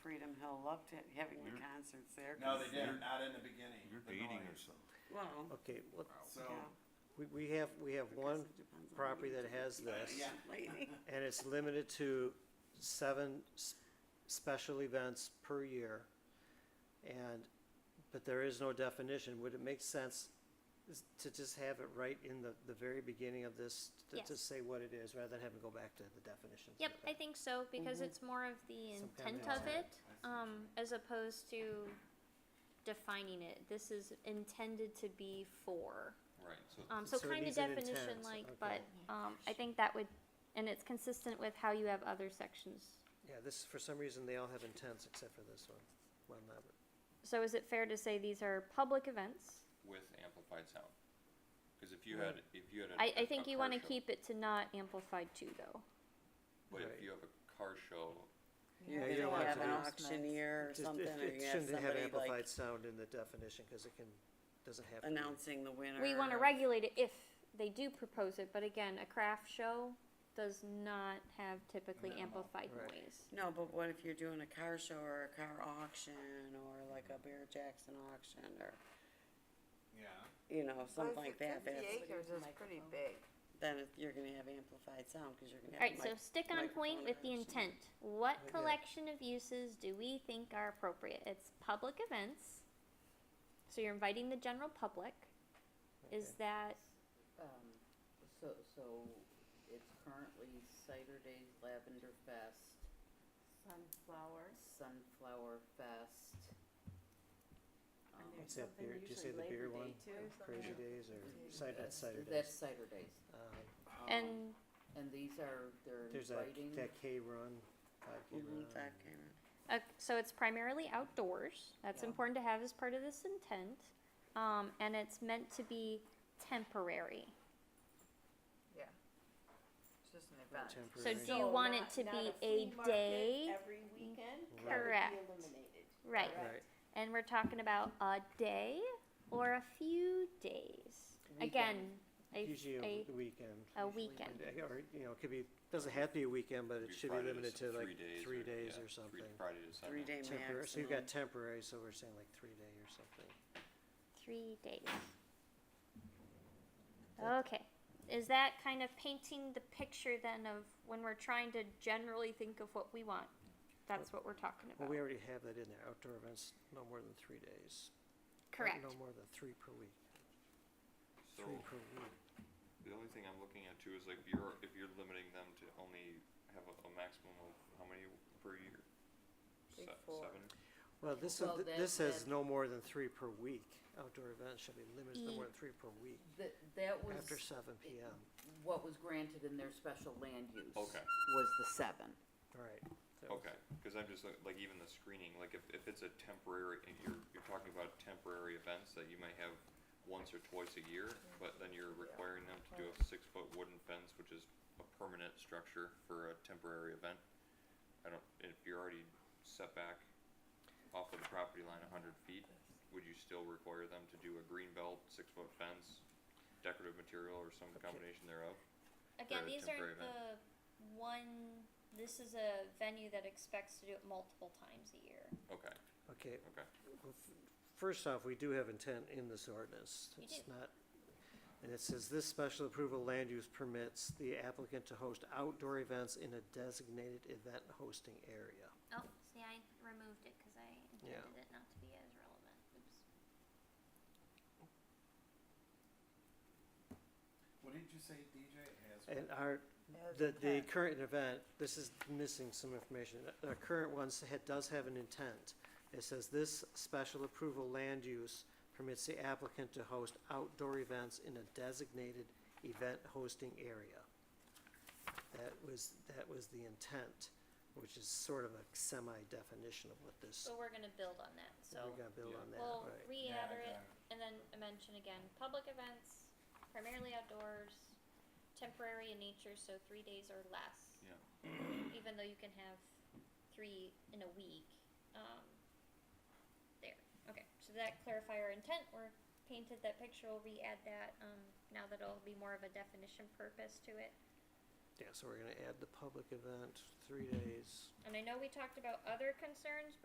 Hill loved it, having the You're- concerts there. No, they 'cause- didn't, not in the beginning. You're the dating noise. or something. Well, Okay, well, So, yeah, we, we have, we have I guess one it depends on property you. that has uh, this, yeah, Lady. and it's limited to seven s- special events per year. And, but there is no definition, would it make sense is- to just have it right in the, the very beginning of this, to- to Yes. say what it is, rather than having to go back to the definitions? Yep, I think so because Mhm. it's more of the Mm-hmm. Some kind of intent of intent. it um, as opposed to defining it. This is intended to be for. Right, so Um, so, So it kind of needs an definition intent, like, okay. but um, I think that would, and it's consistent with how you have other sections. Yeah, this, for some reason, they all have intents except for this one, well, not, So is it fair to say these are public events? with amplified sound. Cause if you Right. had, if you had a. I, I a- think a you car want to show- keep it to not amplified too, though. But Right. if you have a car show, Yeah, They you don't don't have have to an do- auctioneer or Just- something, it- or it you have Shouldn't have somebody like amplified sound in the definition, cause it can, doesn't have. to be. announcing the winner. We want to of- regulate it if they do propose it, but again, a craft show does not have typically No. amplified Right. noise. No, but what if you're doing a car show or a car auction or like a Bear Jackson auction or, yeah. you know, something like that, Fifty that's, acres is pretty big. then it- you're gonna have amplified sound, cause you're gonna have. Alright, so mic- stick on point microphone with the action. intent. What Yeah. collection of uses do we think are appropriate? It's public events. So you're inviting the general public. Is Okay. that, Um, so, so it's currently Cider Days Lavender Fest, Sunflower. Sunflower Fest. And um, What's there's that something beer- did you say usually the beer Labor Day one? too. Crazy Days Yeah. or cider, that's that's- cider That's days. Cider Days, Um, Um, and and these are, they're There's that, inviting, that K run, Mm-hmm. five K Mhm, run. that kind of- Uh, so it's primarily outdoors. That's Yeah. important to have as part of this intent. Um, and it's meant to be temporary. It's just an and event. So Temporary. do you want it to be a day? Every weekend, that would be Correct. eliminated. Right. Right, And we're talking about a day or a few days. Again, a, usually a, a weekend. a usually weekend. And, uh, Or, you know, it could be, doesn't have to be a weekend, but it Maybe should be Friday to limited s- to like days three or- days yeah, or three- something. Friday to Sunday. three day Temporary, so you've got maximum. temporary, so we're saying like three day or something. Three days. That- Okay. Is that kind of painting the picture then of when we're trying to generally think of what we want? That's what we're talking Well, about. we already have that in there, outdoor events, no more than three days. or Correct. No more than three per week, So three per week. the only thing I'm looking at too is like if you're, if you're limiting them to only have a, a maximum of how many per year? Say Se- four. Seven? Well, this, Well, th- that- this says that- no more than three per week, outdoor events shall be limited to no more than three per week, that, that was after seven P M, what was granted in their special land use. Okay. Was the seven. right. that was- Okay, cause I'm just like, like even the screening, like if, if it's a temporary, if you're, you're talking about temporary events that you may have once or twice a year, but then you're requiring them to do a six foot wooden fence, which is a permanent structure for a temporary event. I don't, if you're already set back off of the property line a hundred feet, would you still require them to do a green belt, six foot fence, decorative material or some Okay. combination thereof? Again, a these temporary aren't event. the one, this is a venue that expects to do it multiple times a year. Okay, Okay, okay. Well, f- First off, we do have intent in this ordinance. You It's do. not, and it says this special approval land use permits the applicant to host outdoor events in a designated event hosting area. Oh, see, I removed it because I Yeah. intended it not to be as relevant. Oops. What did you say DJ has? And our, As the, the intent. current event, this is missing some information. The- The current one does have an intent. It says this special approval land use permits the applicant to host outdoor events in a designated event hosting area. That was, that was the intent, which is sort of a semi-definition of what this, So we're gonna build on that, we so gotta build yeah. on that, we'll right? Yeah, I re-gather it got it. and then mention again, public events, primarily outdoors, temporary in nature, so three days or less. Yeah. Even though you can have three in a week, um, there, okay, so did that clarify our intent, we're painted that picture, we'll re-add that, um, now that it'll be more of a definition purpose to it. Yeah, so we're gonna add the public event, three days. And I know we talked about other concerns,